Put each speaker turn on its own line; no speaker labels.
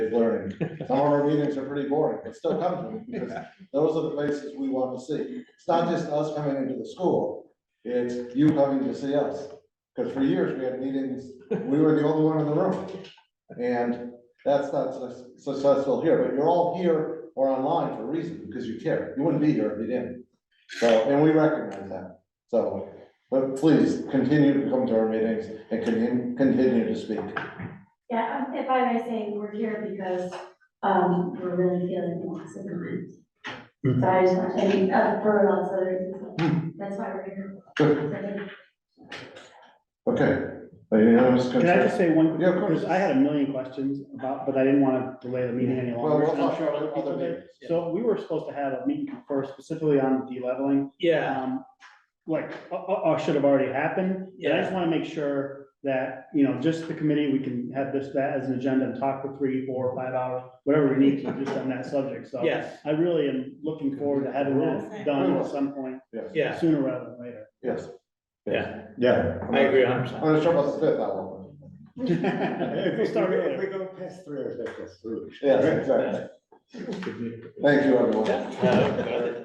learning. Some of our meetings are pretty boring, but still come to them because those are the places we want to see. It's not just us coming into the school, it's you coming to see us. Because for years, we had meetings, we were the only one in the room. And that's not su- successful here, but you're all here or online for a reason, because you care. You wouldn't be here if you didn't. So, and we recognize that. So, but please continue to come to our meetings and continue, continue to speak.
Yeah, um, if I may say, we're here because, um, we're really feeling the loss of the roots. So I just want, and, uh, for lots of reasons, that's why we're here.
Good. Okay. Any other discussion?
Can I just say one?
Yeah, of course.
Because I had a million questions about, but I didn't want to delay the meeting any
Well,
longer.
we'll
and I'm
talk
sure other
about other
people did.
meetings.
So we were supposed to have a meeting first specifically on deleveling.
Yeah,
Um, like, uh, uh, uh, should have already happened. And I just want to make sure that, you know, just the committee, we can have this, that as an agenda and talk for three, four, five hours, whatever we need to just on that subject. So
yes,
I really am looking forward to having that done at some point
Yes,
yeah,
sooner rather than later.
yes.
yeah,
Yeah.
I agree a
I'm
hundred percent.
gonna show us the fifth album.
If we start earlier.
go past three, or if that's through.
Yes, exactly. Thank you, everyone.
Yeah, okay.